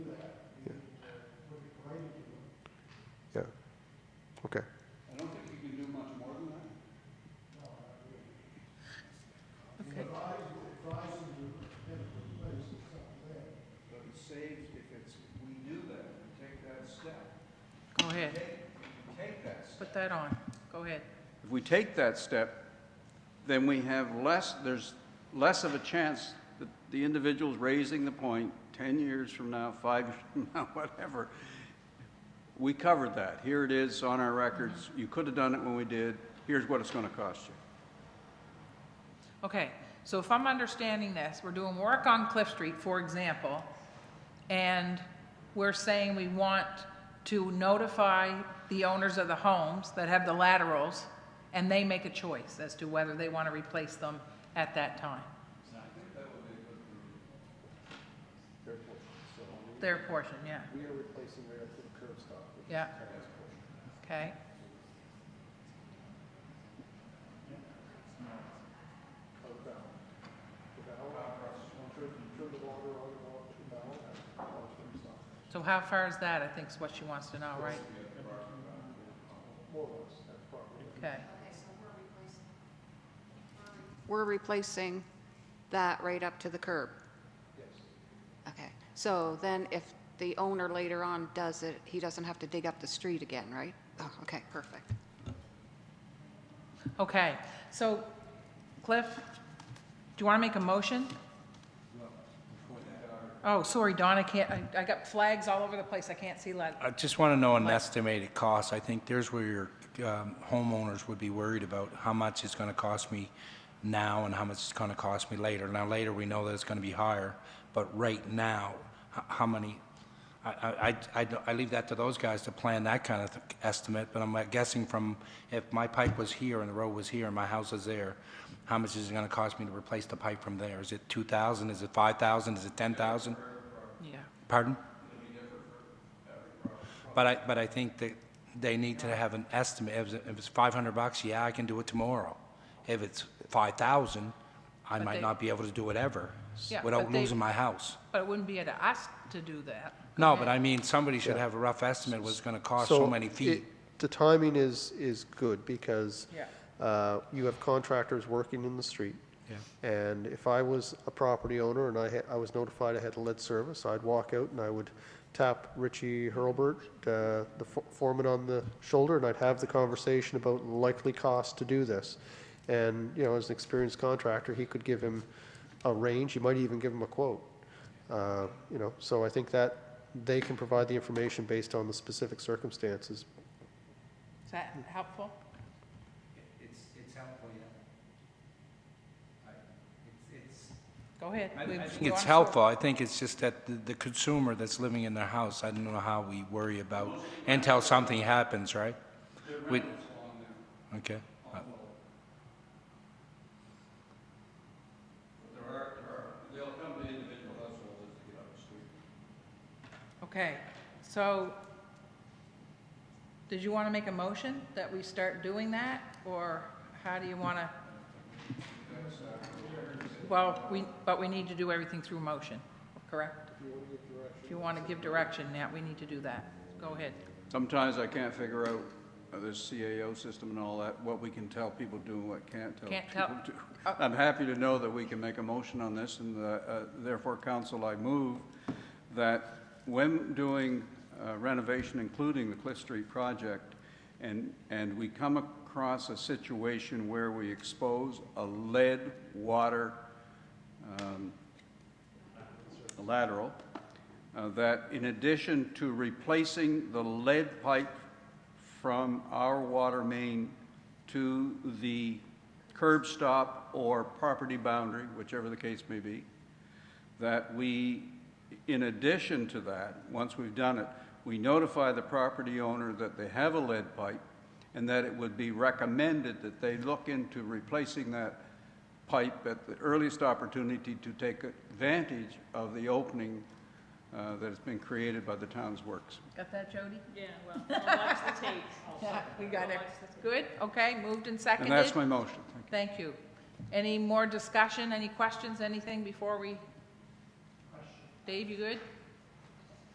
ahead. Take that step. Put that on. Go ahead. If we take that step, then we have less, there's less of a chance that the individual's raising the point 10 years from now, five years from now, whatever. We covered that. Here it is on our records. You could have done it when we did. Here's what it's going to cost you. Okay, so if I'm understanding this, we're doing work on Cliff Street, for example, and we're saying we want to notify the owners of the homes that have the laterals, and they make a choice as to whether they want to replace them at that time. Their portion, yeah. We are replacing right up to the curb stop. which is Yeah. the current portion. Okay. Out bound. The bound, on curb, curb the water, all the way up to bound, and all the curb stop. So how far is that? I think is what she wants to know, right? More or less, that's probably. Okay. We're replacing that right up to the curb? Yes. Okay, so then if the owner later on does it, he doesn't have to dig up the street again, right? Oh, okay, perfect. Okay, so Cliff, do you want to make a motion? Oh, sorry, Don, I can't, I- I got flags all over the place, I can't see that. I just want to know an estimated cost. I think there's where your um, homeowners would be worried about how much it's going to cost me now and how much it's going to cost me later. Now, later, we know that it's going to be higher, but right now, h- how many? I- I, I- I don't- I leave that to those guys to plan that kind of th- estimate, but I'm uh, guessing from, if my pipe was here and the road was here and my house is there, how much is it going to cost me to replace the pipe from there? Is it 2,000? Is it 5,000? Is it 10,000? Yeah, Pardon? But I, but I think that they need to have an estimate. If it's- if it's 500 bucks, yeah, I can do it tomorrow. If it's 5,000, I But they- might not be able to do it ever Yeah, without but they- losing my house. but it wouldn't be up to us to do that. No, but I mean, somebody should have a rough estimate what it's going to cost so many feet. it- The timing is, is good because Yeah. uh, you have contractors working in the street. Yeah. And if I was a property owner and I, had- I was notified I had lead service, I'd walk out and I would tap Richie Hurlbert, uh, the fo- foreman on the shoulder, and I'd have the conversation about likely cost to do this. And, you know, as an experienced contractor, he could give him a range, he might even give him a quote. Uh, You know, so I think that they can provide the information based on the specific circumstances, Is that helpful? It's, it's helpful, yeah. I- It's, it's, Go ahead. I- I We- think we I want think it's to- helpful. I think it's just that the- the consumer that's living in their house, I don't know how we worry about, until something happens, right? We- Okay. There are, there are, they'll come to individual households to get up the street. Okay, so, did you want to make a motion that we start doing that, or how do you want to? Well, we, but we need to do everything through motion, correct? If you want to give direction, yeah, we need to do that. Go ahead. Sometimes I can't figure out uh, this CAO system and all that, what we can tell people do and what can't tell Can't tell- people do. I'm happy to know that we can make a motion on this, and uh, uh, therefore, council, I move that when doing uh, renovation, including the Cliff Street project, and, and we come across a situation where we expose a lead water um, lateral, uh, that in addition to replacing the lead pipe from our water main to the curb stop or property boundary, whichever the case may be, that we, in addition to that, once we've done it, we notify the property owner that they have a lead pipe and that it would be recommended that they look into replacing that pipe at the earliest opportunity to take advantage of the opening uh, that has been created by the town's works. Got that, Jody? Yeah, well, I'll watch the tape. Yeah, we got it. Good, okay, moved and seconded. And that's my motion. Thank Thank you. Any more discussion, any questions, anything before we? Dave, you good?